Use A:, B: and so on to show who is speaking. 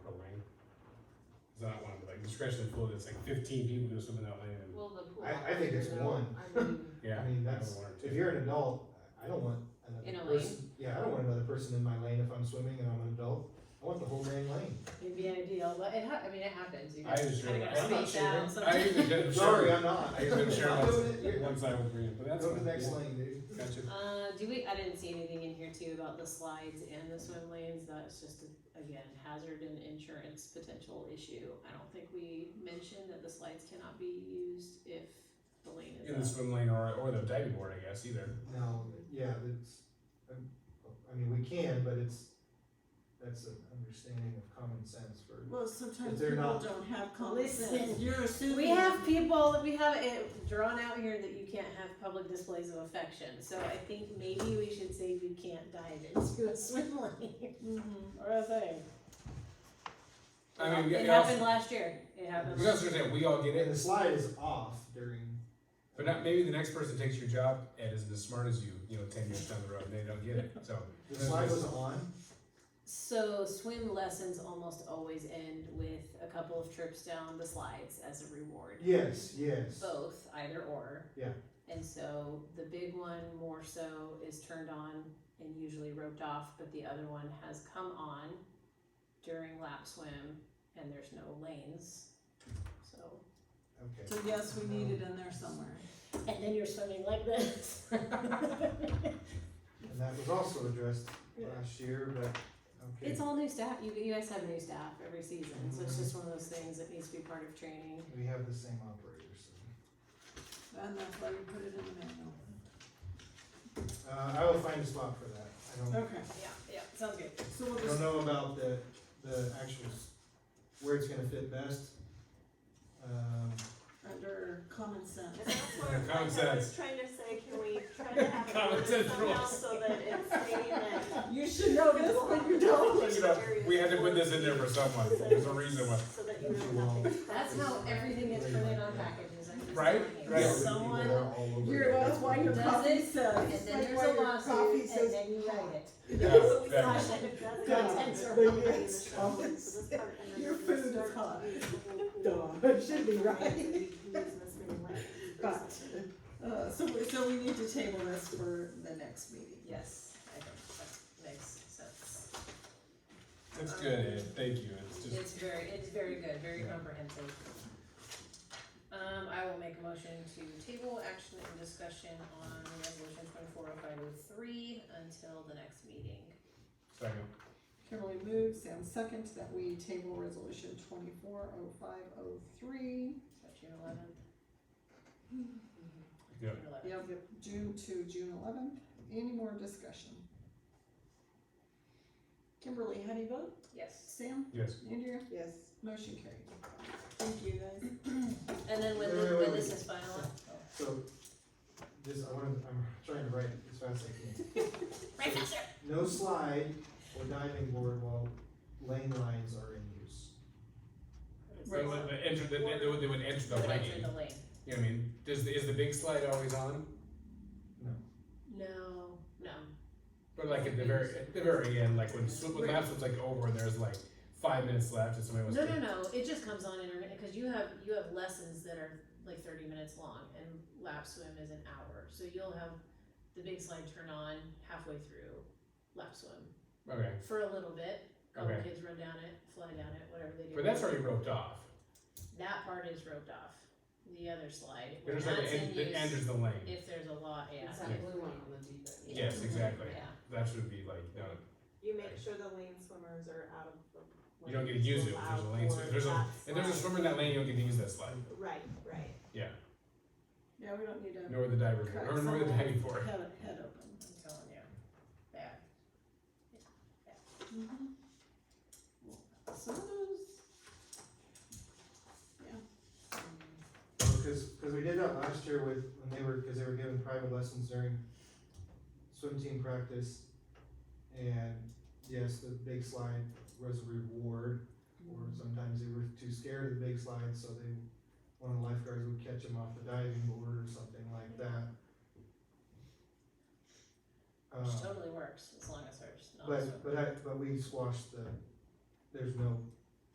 A: discretion of the pool, that's like fifteen people gonna swim in that lane, and,
B: Well, the pool.
C: I- I think it's
B: you know,
C: one.
B: I mean,
A: yeah.
C: I mean,
A: I
C: that's-
A: would want it
C: If
A: too.
C: you're an adult, I I don't want
B: In a
C: another person, yeah, I don't want another person in my lane if I'm swimming and I'm an adult. I want the whole dang lane.
B: It'd be ideal, but it ha- I mean, it happens, you
A: I
B: guys
A: just
B: kinda
A: really,
B: gotta
C: I'm not
B: space out
C: sure.
A: I
B: sometimes.
A: usually did.
C: Sorry, I'm not.
A: I usually share
C: I'm doing it.
A: one,
C: You're-
A: one side with Brian, but that's.
C: Go to
A: fine.
C: the next
A: Yeah.
C: lane, dude.
A: Gotcha.
B: Uh, do we, I didn't see anything in here too about the slides and the swim lanes, that's just, again, hazard and insurance potential issue. I don't think we mentioned that the slides cannot be used if the lane
A: In the
B: is up.
A: swim lane or, or the diving board, I guess, either.
C: No, yeah, it's, um, I mean, we can, but it's, that's an understanding of common sense for.
D: Well, sometimes
C: If they're
D: people
C: not-
D: don't have common sense.
B: Listen,
D: You're assuming.
B: We have people, we have it drawn out here that you can't have public displays of affection, so I think maybe we should say you can't dive into a swim lane or a thing.
A: I mean, we-
B: It
A: we also-
B: happened last year, it happened.
A: We also understand, we all get
C: And
A: it,
C: the slide is off during.
A: but not, maybe the next person takes your job and isn't as smart as you, you know, ten years down the road, and they don't get it, so.
C: The slide was on,
B: So swim lessons almost always end with a couple of trips down the slides as a reward.
C: yes, yes,
B: Both, either or.
C: Yeah.
B: And so the big one more so is turned on and usually roped off, but the other one has come on during lap swim and there's no lanes. So,
C: okay.
D: So yes, we need it in there somewhere.
B: and then you're swimming like this.
C: And that was also addressed last year, but, okay.
B: It's all new staff, you, you guys have new staff every season, so it's just one of those things that needs to be part of training.
C: We have the same operator, so.
D: And that's why we put it in the manual.
C: Uh, I will find a spot for that. I don't,
D: Okay,
B: Yeah, yeah, sounds good.
D: so we'll
C: I don't
D: just,
C: know about the, the actual, s- where it's gonna fit best. Um,
D: under common sense.
E: And that's where
A: Common
E: like, I was
A: sense.
E: trying to say, can we try to have
A: Common
E: it worded
A: sense
E: somehow
A: rules.
E: so that it's saying that.
D: You should know this, but you don't.
A: Look it up. We had to put this in there for someone, there's a reason why.
E: So that you know nothing's.
B: That's how everything is printed on packages. I'm just
A: Right,
B: telling you.
A: right.
B: Someone,
C: They're all over
D: You're,
C: the
D: that's why your
C: place.
B: Does
D: coffee
B: it?
D: says.
B: and
D: That's
B: then there's
D: why
B: a
D: your coffee
B: lawsuit, and
D: says
B: then you write it.
A: Yeah,
E: We
A: that-
E: slash it, it doesn't
D: God,
E: make sense.
D: the yes,
E: So this
D: common
E: part and then
D: Your
E: we
D: food is
E: start to
D: hot.
E: use the whole-
D: Duh, it should be right.
E: We use this many languages or
D: But-
E: something.
D: Uh, so, we- so we need to table this for the next meeting.
B: Yes, I think that makes sense.
A: That's good, thank you, it's just,
B: It's very, it's very good, very
A: Yeah.
B: comprehensive. Um, I will make a motion to table action and discussion on resolution twenty-four oh five oh three until the next meeting.
A: second,
D: Kimberly moves, Sam seconds that we table resolution twenty-four oh five oh three.
B: Is that June eleventh? Mm-hmm.
A: Yeah.
D: Yep, June to June eleventh. Any more discussion? Kimberly, how do you vote?
B: Yes,
D: Sam?
A: yes.
D: Andrea? Yes. Motion carried. Thank you, guys.
B: and then when,
C: Wait,
B: the-
C: wait,
B: when
C: wait,
B: this
C: wait.
B: is final,
C: So, this, I wanna, I'm trying to write it as fast as I can.
B: right faster.
C: No slide or diving board while lane lines are in use.
A: They would, they enter, they, they would, they would enter the
B: Put it in
A: lane,
B: the lane.
A: you know what I mean? Does, the- is the big slide always on?
B: No, no.
A: But like at the very, at the very end, like when, swim- when laps was like over and there's like five minutes left and somebody was.
B: No, no, no, it just comes on intermittent, cause you have, you have lessons that are like thirty minutes long and lap swim is an hour, so you'll have the big slide turn on halfway through lap swim
A: Okay,
B: for a little bit, couple
A: okay,
B: kids run down it, fly down it, whatever they do.
A: but that's already roped off,
B: That part is roped off, the other slide, when
A: there's
B: that's
A: like,
B: in
A: en- that
B: use,
A: enters the lane.
B: if there's a law, yeah,
F: It's that blue one on the deep end.
A: Yes, exactly.
B: yeah.
A: That should be like, no,
E: You make sure the lane swimmers are out of the.
A: you don't get to use it if there's a lane swim. If there's a, if there's a swimmer in that lane, you don't get to use that slide,
E: Right, right.
D: Yeah, we don't need to
A: nor the diver,
D: Correct.
A: or nor the diving board.
D: head, head open.
B: I'm telling you, bad.
D: Mm-hmm. Some of those,
C: Because, because we did that last year with, when they were, because they were given private lessons during swim team practice. And yes, the big slide was a reward, or sometimes they were too scared of the big slide, so they, one of the lifeguards would catch them off the diving board or something like that. Uh,
B: Which
A: Uh.
B: totally works, as long as there's not a swim.
C: But, but I, but we squashed the, there's no